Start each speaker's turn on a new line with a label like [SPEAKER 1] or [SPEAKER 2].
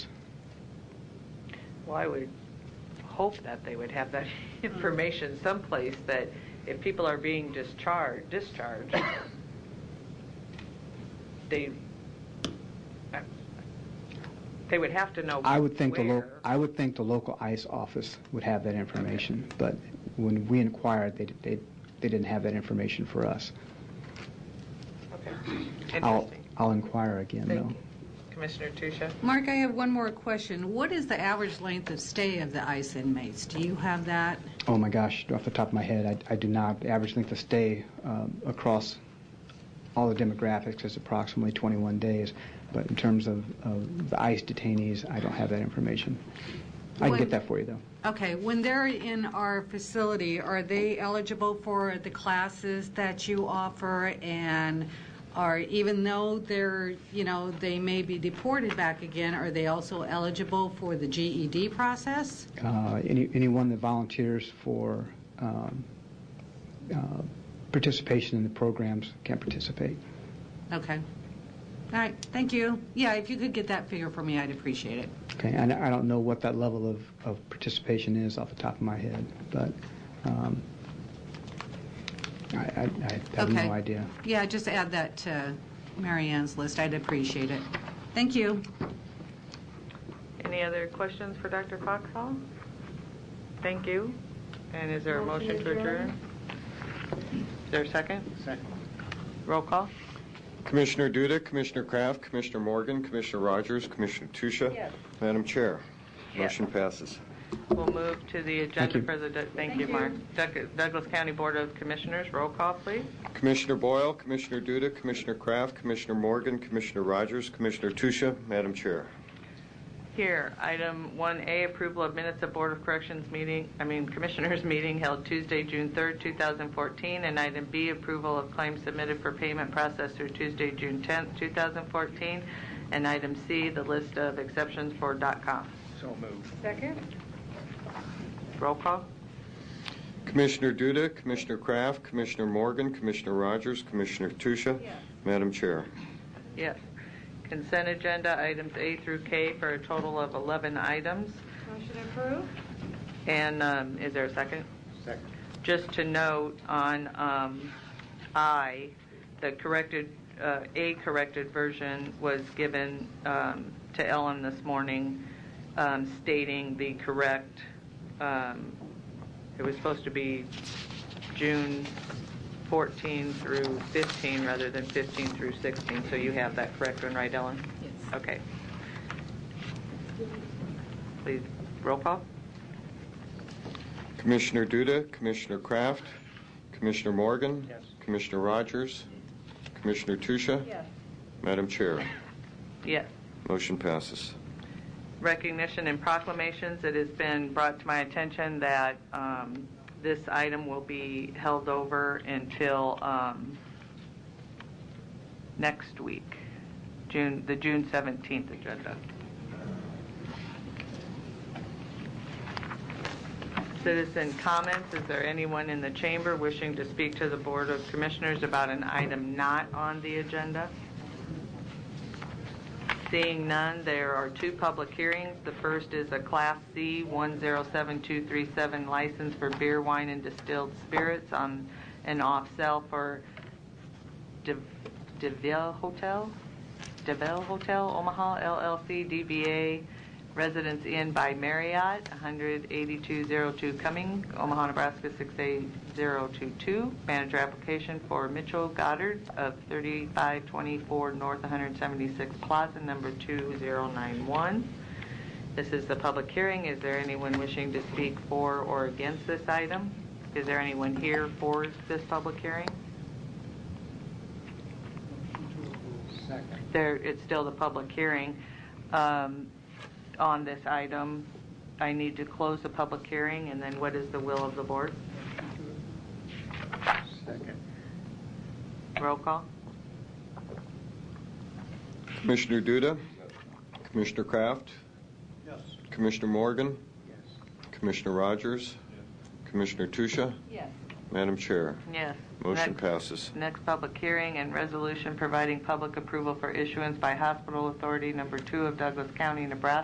[SPEAKER 1] Well, I would hope that they would have that information someplace that if people are being discharged, discharged, they, I- they would have to know
[SPEAKER 2] I would think the, lo-
[SPEAKER 1] where.
[SPEAKER 2] I would think the local ICE office would have that information, but when we inquired, they, they, they didn't have that information for us.
[SPEAKER 1] Okay.
[SPEAKER 2] I'll,
[SPEAKER 1] Interesting.
[SPEAKER 2] I'll inquire again,
[SPEAKER 1] Thank
[SPEAKER 2] though.
[SPEAKER 1] you. Commissioner Tusha?
[SPEAKER 3] Mark, I have one more question. What is the average length of stay of the ICE inmates? Do you have that?
[SPEAKER 2] Oh, my gosh, off the top of my head, I, I do not, the average length of stay um, across all the demographics is approximately 21 days, but in terms of, of the ICE detainees, I don't have that information. I can
[SPEAKER 3] When-
[SPEAKER 2] get that for you, though.
[SPEAKER 3] Okay, when they're in our facility, are they eligible for the classes that you offer and are, even though they're, you know, they may be deported back again, are they also eligible for the GED process?
[SPEAKER 2] Uh, any, anyone that volunteers for um, uh, participation in the programs can participate.
[SPEAKER 3] Okay. All right, thank you. Yeah, if you could get that figure for me, I'd appreciate it.
[SPEAKER 2] Okay, and I don't know what that level of, of participation is off the top of my head, but um, I, I, I have
[SPEAKER 3] Okay.
[SPEAKER 2] no idea.
[SPEAKER 3] Yeah, just add that to Mary Ann's list. I'd appreciate it. Thank you.
[SPEAKER 1] Any other questions for Dr. Foxhall? Thank you. And is there a motion to adjourn? Is there a second? Second. Roll call?
[SPEAKER 4] Commissioner Duda, Commissioner Kraft, Commissioner Morgan, Commissioner Rogers, Commissioner Tusha. Madam Chair,
[SPEAKER 1] Yes.
[SPEAKER 4] motion passes.
[SPEAKER 1] We'll move to the agenda
[SPEAKER 2] you.
[SPEAKER 1] for the, Doug- thank you, Mark. Doug- Douglas County Board of Commissioners, roll call, please.
[SPEAKER 4] Commissioner Boyle, Commissioner Duda, Commissioner Kraft, Commissioner Morgan, Commissioner Rogers, Commissioner Tusha. Madam Chair.
[SPEAKER 1] Here, item 1A, approval of minutes of Board of Corrections meeting, I mean Commissioners meeting held Tuesday, June 3rd, 2014, and item B, approval of claims submitted for payment processed through Tuesday, June 10th, 2014, and item C, the list of exceptions for dot .com. So moved. Second. Roll call?
[SPEAKER 4] Commissioner Duda, Commissioner Kraft, Commissioner Morgan, Commissioner Rogers, Commissioner Tusha. Madam Chair.
[SPEAKER 1] Yes. Consent agenda, items A through K for a total of 11 items.
[SPEAKER 5] Motion approved.
[SPEAKER 1] And um, is there a second? Second. Just to note on um, I, the corrected, uh, a corrected version was given um, to Ellen this morning um, stating the correct, um, it was supposed to be June 14 through 15 rather than 15 through 16. So you have that correct one, right, Ellen? Yes. Okay. Please, roll call.
[SPEAKER 4] Commissioner Duda, Commissioner Kraft, Commissioner Morgan. Commissioner Rogers, Commissioner Tusha.
[SPEAKER 5] Yes.
[SPEAKER 4] Madam Chair.
[SPEAKER 1] Yes.
[SPEAKER 4] Motion passes.
[SPEAKER 1] recognition and proclamations, it has been brought to my attention that um, this item will be held over until um, next week, June, the June 17th agenda. Citizen comments, is there anyone in the chamber wishing to speak to the Board of Commissioners about an item not on the agenda? Seeing none, there are two public hearings. The first is a Class C 107237 license for beer, wine, and distilled spirits on and off sale for De- DeVille Hotel, DeVille Hotel Omaha LLC DBA Residence Inn by Marriott, 18202 Cumming, Omaha, Nebraska 68022. Manager application for Mitchell Goddard of 3524 North 176 Plaza, number 2091. This is the public hearing. Is there anyone wishing to speak for or against this item? Is there anyone here for this public hearing? there, it's still the public hearing um, on this item. I need to close the public hearing, and then what is the will of the board? Roll call?
[SPEAKER 4] Commissioner Duda? Commissioner Kraft? Commissioner Morgan? Commissioner Rogers? Commissioner Tusha?
[SPEAKER 5] Yes.
[SPEAKER 4] Madam Chair,
[SPEAKER 1] Yes.
[SPEAKER 4] motion
[SPEAKER 1] Next-
[SPEAKER 4] passes.
[SPEAKER 1] Next public hearing and resolution providing public approval for issuance by Hospital Authority Number Two of Douglas County, Nebraska